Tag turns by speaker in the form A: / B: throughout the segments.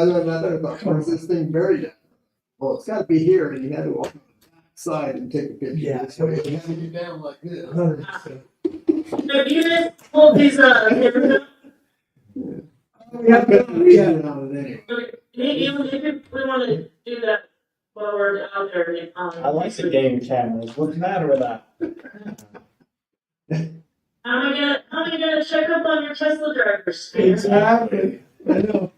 A: other another about where's this thing buried at? Well, it's gotta be here and you had to walk on the side and take a picture.
B: Yeah.
A: So it had you down like this.
B: Hundred percent.
C: The unit pulled his, uh, his-
A: Yeah, but we had it on it anyway.
C: even if we wanna do that while we're out there and, um.
D: I like the game cameras. What's the matter with that?
C: How am I gonna, how am I gonna check up on your Tesla drivers?
B: Exactly. I know.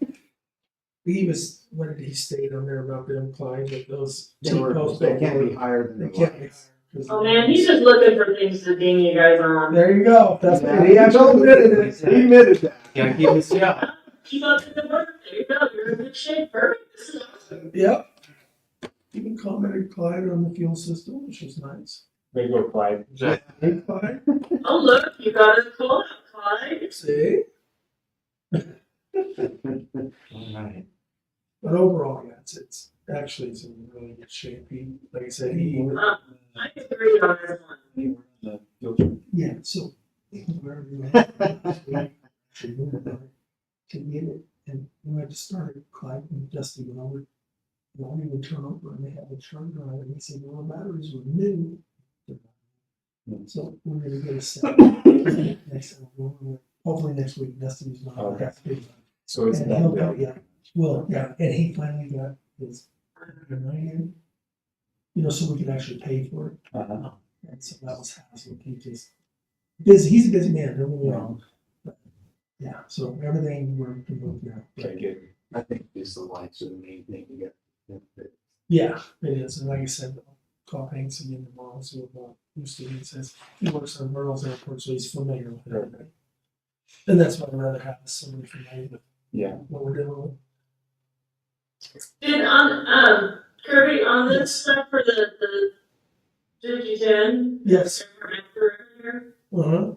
B: He was, what did he state on there about them climbing with those?
A: They were-
B: T-posts
A: they
B: don't
A: can't be
B: work?
A: higher than
B: They
A: the
B: can't be.
A: lights.
B: 'Cause-
C: Oh man, he's just looking for things to ding you guys on.
B: There you go. That's
A: Yeah, He actually admitted it, he admitted that.
E: Yeah, he was, yeah.
C: Keep up the good work, there you go, you're in good shape, perfect, this is awesome.
B: Yep. Even commented Clyde on the fuel system, which was nice.
D: They go quiet.
B: Hey, Clyde,
C: Oh, look, you got a call, Clyde.
B: see?
E: Alright.
B: But overall, yeah, it's, it's actually it's in really good shape. He, like I said, he,
C: Uh, I agree on this one.
B: yeah, so. wherever you are, should move it there, To get it, and we had to start it, Clyde and Dusty went over. Won't even turn over and they had a turn on and he said, well, the batteries were new. So we're gonna get a set. Next, hopefully next week Dusty's not,
D: Okay.
B: that's big.
D: So it's
B: And
D: that
B: he'll
D: big.
B: go, yeah, well, yeah, and he finally got his million. You know, so we could actually pay for it, Um,
D: Uh-huh.
B: and so that was hassle, he just, busy, he's a busy man, don't get me wrong. But, Yeah, so everything worked, and worked out.
D: Okay, good.
A: I think just the lights are the main thing you got.
B: Yeah, it is, and like I said, I'll call Hanks again tomorrow, see what uh, Bruce Stevens says, he works on Merle's airport, so he's familiar with everything. And that's what I'd rather have, is somebody familiar with
D: Yeah.
B: what we're doing with.
C: Did on, um, Kirby, on this stuff for the, the, did you ten?
B: Yes. Uh-huh.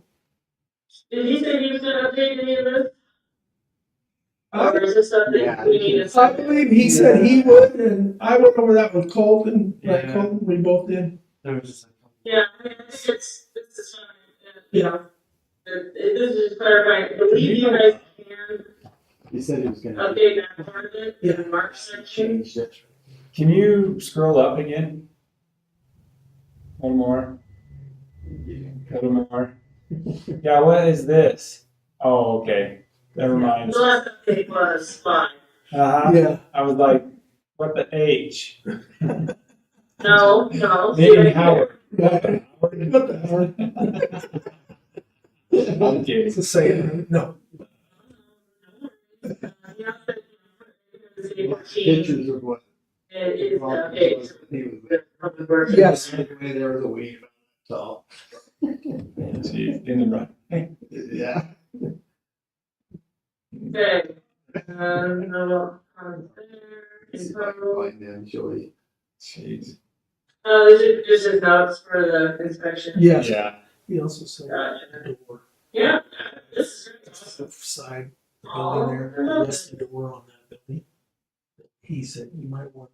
C: Did he say he was gonna update any of this? Or is this
A: yeah,
C: something we need to?
B: I believe he said he would, and I went over that with Colton, like
E: Yeah.
B: Colton, we both did.
E: There was just like.
C: Yeah, I mean, it's, it's, this is fine, you know. It, it, this is just clarifying, I believe you guys can
A: He said he was gonna
C: update that part of it in the March section.
A: change it.
D: Can you scroll up again? One more. A little more. Yeah, what is this? Oh, okay. Never mind.
C: The last update was five.
D: Uh-huh.
B: Yeah.
D: I was like, what the H?
C: No, no.
D: Maybe Howard.
B: What the hell?
D: I'm kidding.
B: It's the same, right? no,
C: It
A: Pictures of what.
C: is updates.
A: He was.
C: Public works.
B: yes,
A: Anyway, there was a weed, so,
D: Jeez, in the run.
A: yeah.
C: Okay. Um, no, um,
A: See
C: there,
A: if I can
C: info.
A: find them, shall we?
D: Jeez.
C: Oh, those are just his notes for the inspection.
B: yes.
D: Yeah.
B: He also said
C: Gotcha.
B: the door,
C: Yeah, this is
B: that's
C: awesome.
B: the side, the building there,
C: Oh, I love
B: that's the door on that building. He said you might want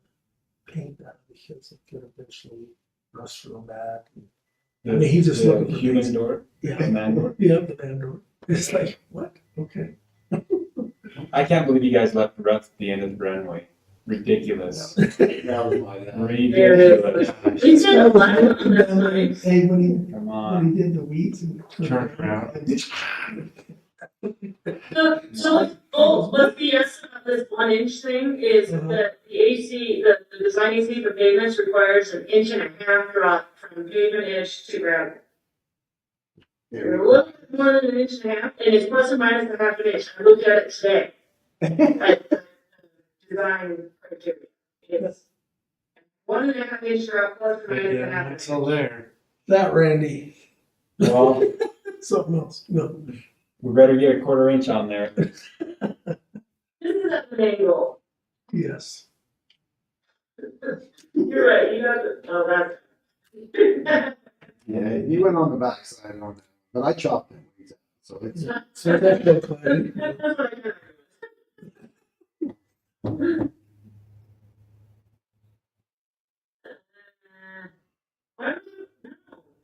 B: to paint that because it could eventually rust real bad. I mean, he's just
D: The
B: looking for
D: Human
B: things.
D: door,
B: Yeah,
D: man door.
B: yeah, the van door, it's like, what, okay,
D: I can't believe you guys left the rest at the end of the runway. Ridiculous.
A: That was my, uh,
D: Ridiculous.
C: He said a lot of them, that's nice.
B: Hey, when he,
D: Come
B: When
D: on.
B: he did the weeds and.
E: Turned around.
C: So, so what's, oh, what's the yes about this one inch thing is
E: Mm-hmm.
B: Mhm.
C: that the AC, the, the design AC for pavements requires an inch and a half drop from pavement edge to ground.
A: there
C: You're
A: we
C: a little bit more than an inch and a half, and it's plus or minus a half an inch, I looked at it today.
A: go.
C: at the design criteria. It's one and a half inch drop plus or minus a half
E: Yeah,
C: an
E: it's
C: inch.
E: all there.
B: That Randy,
D: Well,
B: something else, no,
D: we better get a quarter inch on there.
C: This is at an angle,
B: yes.
C: you're right, you got the, oh, that's.
A: Yeah, he went on the backside on that, but I chopped him. So it's,
B: So that bill collected,
C: That's what I got. Uh, Why would you, no,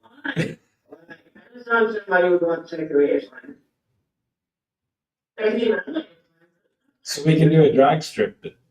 C: why? Why? I just thought somebody would want to take the reason. I mean, I'm like,
D: So we can do a drag strip